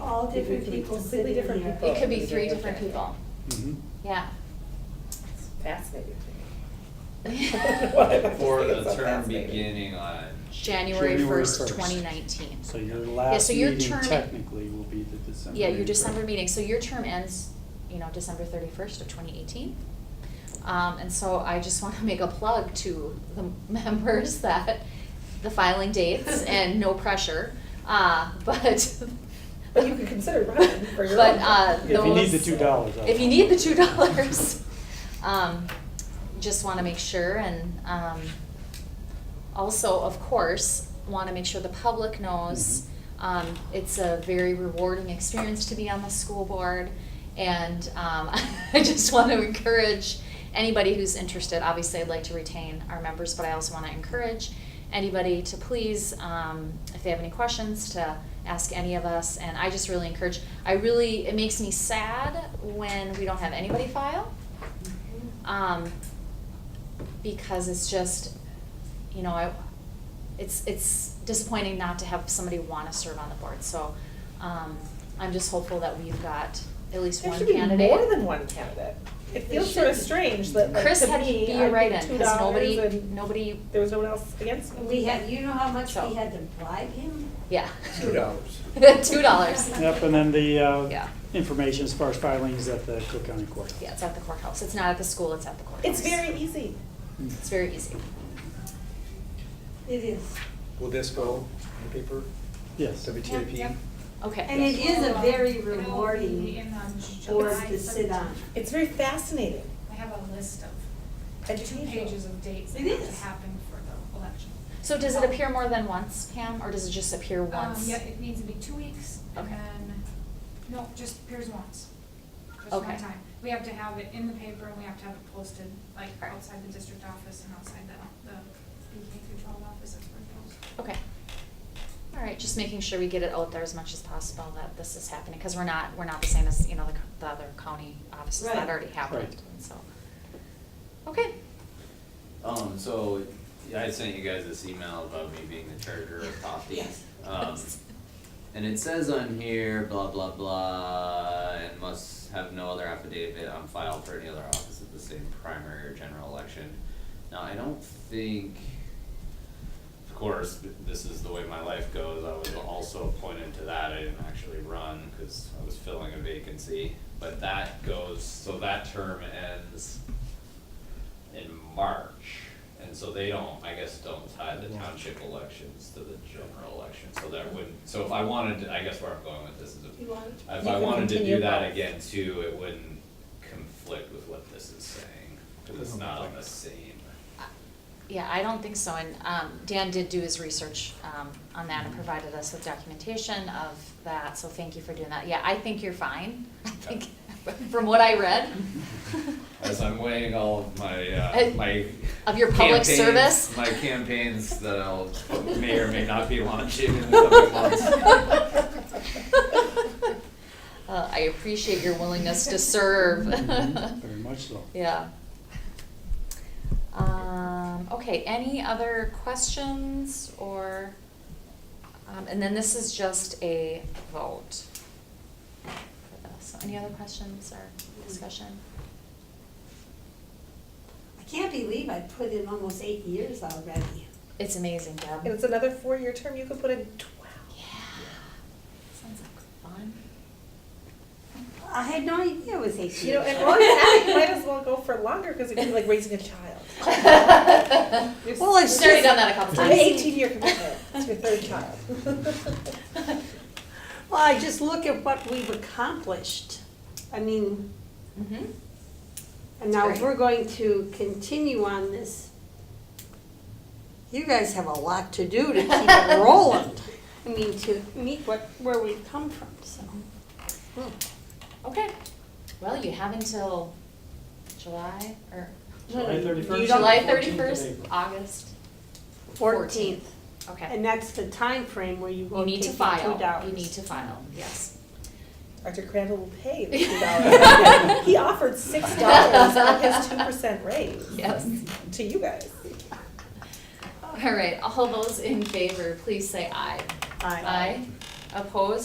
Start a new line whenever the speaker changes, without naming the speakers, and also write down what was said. all different people sitting
Completely
here.
different people.
It could be three different people,
Mhm.
yeah.
It's fascinating to me.
For
It's
the
so
term
fascinating.
beginning on,
January
January
first,
1st.
twenty nineteen.
So your last
so your
meeting
term-
technically will be the December.
Yeah, your
meeting.
December meeting, so your term ends, you know, December thirty-first of twenty eighteen. Um, and so I just wanna make a plug to the members that the filing dates and no pressure, uh, but.
But you could consider running for your
But,
own.
uh,
If you need the
those-
two dollars. I'll-
If you need the two dollars, um, just wanna make sure and, um, also, of course, wanna make sure the public knows, um, it's a very rewarding experience to be on the school board. And, um, I just wanna encourage anybody who's interested, obviously I'd like to retain our members, but I also wanna encourage anybody to please, um, if they have any questions, to ask any of us. And I just really encourage, I really, it makes me sad when we don't have anybody file. Um, because it's just, you know, I, it's, it's disappointing not to have somebody wanna serve on the board, so, um, I'm just hopeful that we've got at least
There
one
should be
candidate.
more than one candidate. It feels sort of strange that like,
Chris
to
had to
me,
be
I
a
paid
write-in,
two
cause
dollars
nobody,
and
nobody,
there was no one else against me.
We had, you know how much
So-
we had to bribe him?
yeah.
Two dollars.
Two dollars,
Yep, and then the,
Yeah.
uh, information as far as filings at the Cook County Court.
yeah, it's at the courthouse, it's not at the school, it's at the courthouse.
It's very easy.
Mm-hmm.
It's very easy.
It is.
Will this go in the paper,
Yes.
WTIP?
Yeah,
Okay.
And it is a very
It'll be
rewarding
in, um,
board
July
to sit on.
17th.
It's very fascinating.
I have a list of two
Educational.
pages of dates that
It
have to
is.
happen for the election. Oh,
So does it appear more than once, Pam, or does it just appear
Um,
once?
Yeah, it needs to be two weeks and
Okay.
then, no, just appears once. Just one
Okay.
time. We have to have it in the paper and we have to have it posted, like
Right.
outside the district office and outside the, the BK through twelve office, that's where it goes.
Okay. All right, just making sure we get it out there as much as possible that this is happening, because we're not, we're not the same as, you know, the, co- the other county offices that
Right.
already happened,
Right.
and so. Okay,
um, so I sent you guys this email about me being the charger of Poppy.
Yes.
Um, and it says on here, blah, blah, blah, and must have no other affidavit on file for any other office at the same primary or general election. Now, I don't think, of course, th- this is the way my life goes, I was also appointed to that, I didn't actually run, cause I was filling a vacancy. But that goes, so that term ends in March, and so they don't, I guess, don't tie the township elections to the general election, so that wouldn't, so if I wanted, to I guess where I'm going with this is if.
You want-
If
you
I
can
wanted to
continue
do that
both.
again too, it wouldn't conflict with what this is saying, cause it's not on the same.
yeah, I don't think so, and, um, Dan did do his research, um, on that
Mm-hmm.
and provided us with documentation of that, so thank you for doing that. Yeah, I think you're fine, I think, from what I read.
As I'm weighing all of my, uh,
Uh,
my.
of your public
campaigns-
service?
My campaigns that I'll, may or may not be launching in the coming months.
Uh, I appreciate your willingness to serve.
Mhm, Very much so.
Yeah. Um, okay, any other questions or, um, and then this is just a vote. for this. So any other questions or discussion?
I can't believe I put in almost eight years already.
It's amazing, Deb.
And it's another four-year term, you could put in twelve.
Yeah. Sounds like fun.
I had no idea it was eight years.
You know, and while you're at it, you might as well go for longer, because it'd be like raising a child.
Well, I've already done that a couple
It's an
times.
eighteen-year commitment, it's your third child.
Well, I just look at what we've accomplished. I mean,
Mm-hmm.
and now if
Right.
we're going to continue on this, you guys have a lot to do to keep it rolling. I mean, to meet what, where we've come from, so.
Okay, well, you have until July or
July
You
31st.
don't-
July
14th of
thirty-first,
April.
August,
Fourteenth,
okay.
and that's the time frame where you
You
won't
need
take
to
the two dollars.
file, you need to file, yes.
Dr. Crandall will pay the two dollars. He offered six dollars on his two percent raise
Yes.
to you guys.
All right, all those in favor, please say aye.
Aye.
Aye. Opposed?